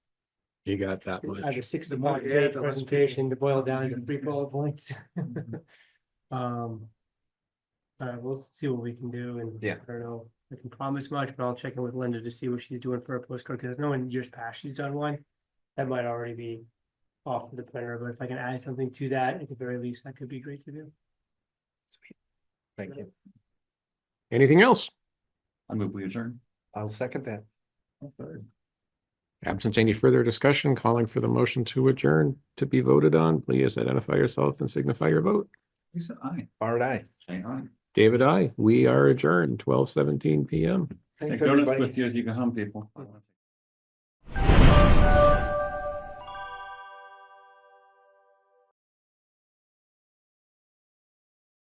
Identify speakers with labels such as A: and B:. A: You got that much.
B: Either six to
C: The
B: one
C: one- yeah,
B: day
C: the less
B: presentation to boil down to
C: Mhm.
B: three bullet points. Um. Uh, we'll see what we can do and.
C: Yeah.
B: I don't know, I can promise much, but I'll check in with Linda to see what she's doing for a postcard, because I know in years past she's done one. That might already be off the printer, but if I can add something to that, at the very least, that could be great to do.
D: Thank you.
A: Anything else?
C: I move we adjourn.
D: I'll second that.
A: Absent any further discussion, calling for the motion to adjourn to be voted on, please identify yourself and signify your vote.
C: Lisa, aye.
D: All right.
C: Jane, aye.
A: David, I, we are adjourned twelve seventeen PM.
D: Thanks,
C: Take donuts
D: everybody.
C: With you, if you can hum people.